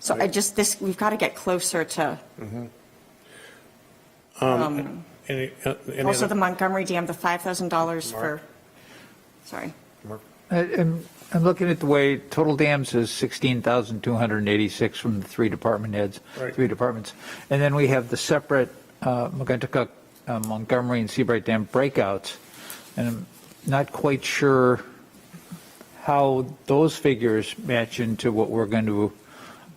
So I just, this, we've got to get closer to, Mm-hmm. um, Any, uh, Um, any also the other? Montgomery Dam, the $5,000 for, Mark. sorry. Mark? I'm, I'm looking at the way total dams is 16,286 from the three department heads, Right. three departments. And then we have the separate uh, McGuntuck, uh, Montgomery and Seabright Dam breakouts. And I'm not quite sure how those figures match into what we're going to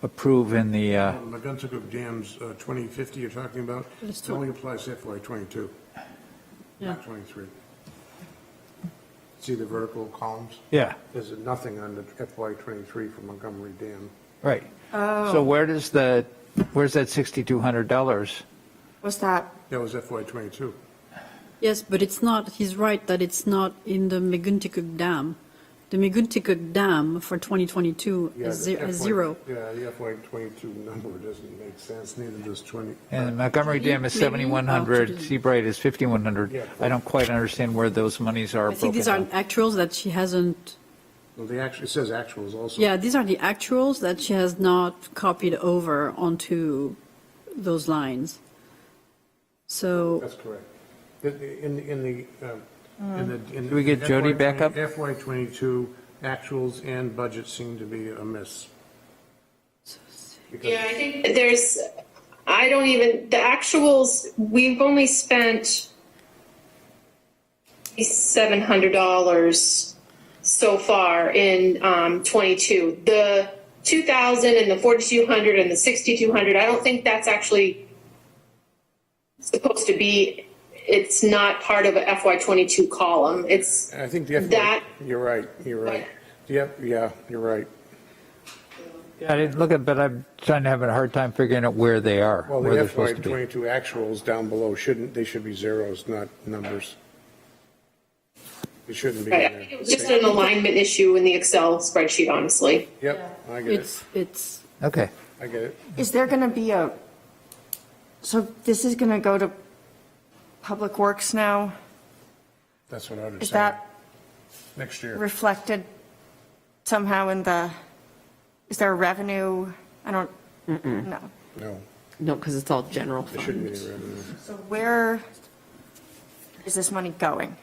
approve in the, uh, McGuntuck Dam's uh, 2050 you're talking about, it only applies to FY '22, not '23. See the vertical columns? yeah, There's nothing on the FY '23 for Montgomery Dam. right. So where does the, where's that $6,200? Was that, That was FY '22. Yes, but it's not, he's right that it's not in the Meguntikuk Dam. The Meguntikuk Dam for 2022 Yeah, is the ze- is FY zero. Yeah, the FY '22 number doesn't make sense, neither does 20. And Montgomery Dam is Maybe- maybe you have to 7,100, do- Seabright is 5,100. Yeah. I don't quite understand where those monies are I think broken these are down. actuals that she hasn't, Well, the actual, it says actuals also. yeah, these are the actuals that she has not copied over onto those lines. So, That's correct. In, in- in the, um, in Uh. the. in Can we get the Jody FY20 back up? FY '22 actuals and budget seem to be amiss. Because- Yeah, I think there's, I don't even, the actuals, we've only spent $700 so far in um, '22. The 2,000 and the 4,200 and the 6,200, I don't think that's actually supposed to be, it's not part of a FY '22 column. It's, I think the FY, That- you're right, you're right. Yep, yeah, you're right. Yeah, I didn't look at, but I'm trying to have a hard time figuring out where they are, Well, where the they're FY supposed to be. '22 actuals down below shouldn't, they should be zeros, not numbers. They shouldn't be I think it in was just there. an alignment issue in the Excel spreadsheet, honestly. Yep, I get it, it's, it's, Okay, I get it. is there going to be a, so this is going to go to Public Works now? That's what I would Is say. that Next year. reflected somehow in the, is there a revenue? I don't, no. No, No, because it's all general there shouldn't be fund. any revenue. So where is this money going?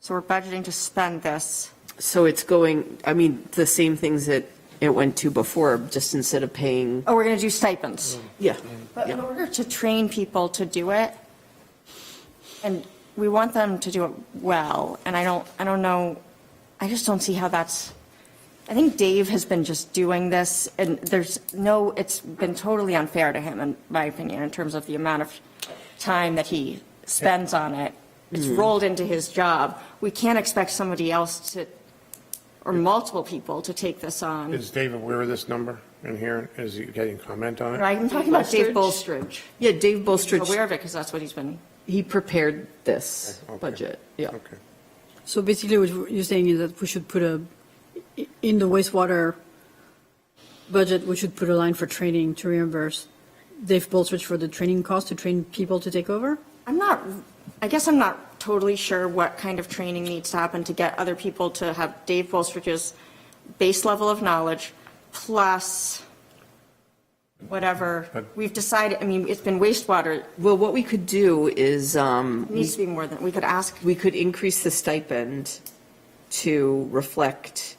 So we're budgeting to spend this. So it's going, I mean, the same things that it went to before, just instead of paying, Oh, we're going to do stipends. yeah. But in order to train people to do it, and we want them to do it well, and I don't, I don't know, I just don't see how that's, I think Dave has been just doing this, and there's no, it's been totally unfair to him, in my opinion, in terms of the amount of time that he spends on it. It's rolled into his job. We can't expect somebody else to, or multiple people to take this on. Is Dave aware of this number in here? Is he getting comment on it? I'm talking about Dave Bolstridge. Yeah, Dave I'm aware Bolstridge, of it, because that's what he's been he prepared this Okay. budget, yeah. Okay. so basically what you're saying is that we should put a, i- in the wastewater budget, we should put a line for training to reimburse Dave Bolstridge for the training cost to train people to take over? I'm not, I guess I'm not totally sure what kind of training needs to happen to get other people to have Dave Bolstridge's base level of knowledge plus whatever. We've decided, I mean, it's been wastewater, It Well, what we could do is, um, needs to be more than, we could ask, we could increase the stipend to reflect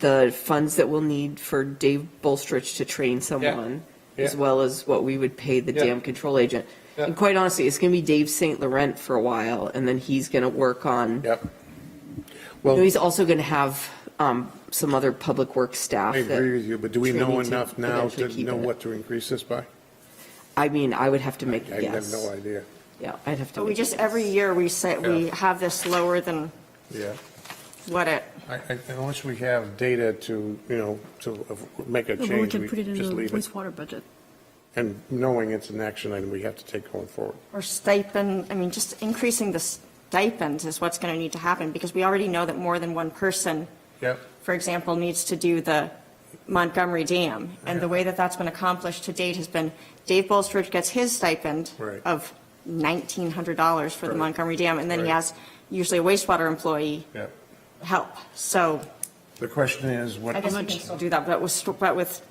the funds that we'll need for Dave Bolstridge to train someone, as Yeah. well as what we would pay the Yeah. dam control agent. Yeah. And quite honestly, it's going to be Dave St. Laurent for a while, and then he's going to work on Yep. You know, Well, He's also going to have um, some other public works staff. I agree that- with you, but do we training know to enough now to eventually keep know it. what to increase this by? I mean, I would have to make I have a guess. no idea. Yeah, I'd have to. but we make a just, guess. every year we say, we Yeah. have this lower than Yeah. what it, I, I, unless we have data to, you know, to make a No, but we change, can put we it in just the leave it. wastewater budget. And knowing it's an action item we have to take going forward. or stipend, I mean, just increasing the stipends is what's going to need to happen, because we already know that more than one person Yep. for example, needs to do the Montgomery Dam. And the way that that's been accomplished to date has been Dave Bolstridge gets his stipend Right. of $1,900 for the Right. Montgomery Dam, and then he Right. has usually a wastewater employee Yep. help. So The question is what, I guess we can still do that, but with, but with